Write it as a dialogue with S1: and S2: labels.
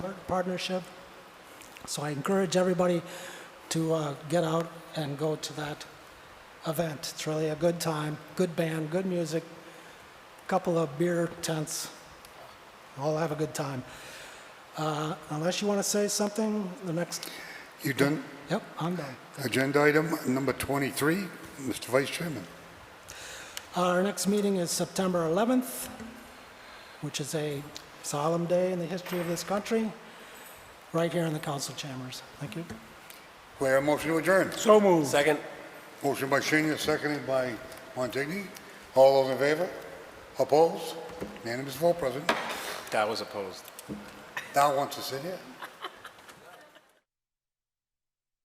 S1: partnership. So I encourage everybody to uh, get out and go to that event. It's really a good time, good band, good music, couple of beer tents. All have a good time. Uh, Unless you want to say something, the next,
S2: You done
S1: yep, I'm done.
S2: agenda item number 23, Mr. Vice Chairman.
S1: Our next meeting is September 11th, which is a solemn day in the history of this country, right here in the council chambers. Thank you.
S2: We have a motion to adjourn.
S3: So moved.
S4: Second.
S2: Motion by Senior, seconded by Montigny. All those in favor? Opposed? Unanimous vote, President.
S4: That was opposed.
S2: Now wants to sit here.